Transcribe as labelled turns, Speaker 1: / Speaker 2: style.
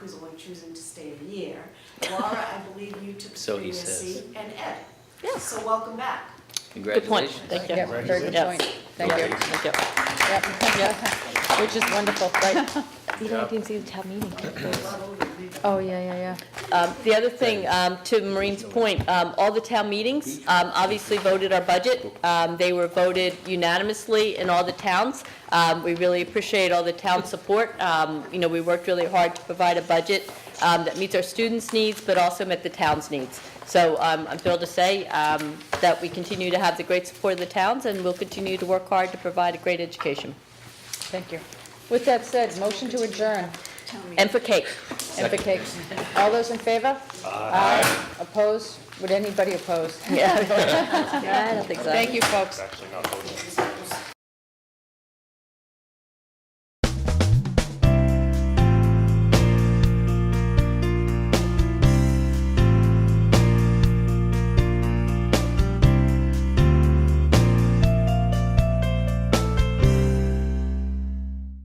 Speaker 1: choosing to stay a year. Laura, I believe you took the
Speaker 2: So he
Speaker 1: previous
Speaker 2: says.
Speaker 1: seat, and Ed.
Speaker 3: Yes.
Speaker 1: So welcome back.
Speaker 3: Good point,
Speaker 2: Congratulations.
Speaker 3: thank you.
Speaker 4: Yep, very good
Speaker 3: Yes.
Speaker 4: point. Thank you.
Speaker 3: Thank you.
Speaker 4: Yep. Which is wonderful, right?
Speaker 5: Even I didn't see the town meeting.
Speaker 4: Oh, yeah, yeah, yeah.
Speaker 3: Um, The other thing, um, to Maureen's point, um, all the town meetings um, obviously voted our budget. Um, They were voted unanimously in all the towns. Um, We really appreciate all the town support. Um, You know, we worked really hard to provide a budget um, that meets our students' needs, but also met the town's needs. So um, I'm thrilled to say um, that we continue to have the great support of the towns, and we'll continue to work hard to provide a great education.
Speaker 4: Thank you. With that said, motion to adjourn.
Speaker 3: And for Kate.
Speaker 4: And for cake. All those in favor? Aye. Opposed? Would anybody oppose?
Speaker 3: Yeah. I don't think so.
Speaker 4: Thank you, folks.
Speaker 6: actually not voting.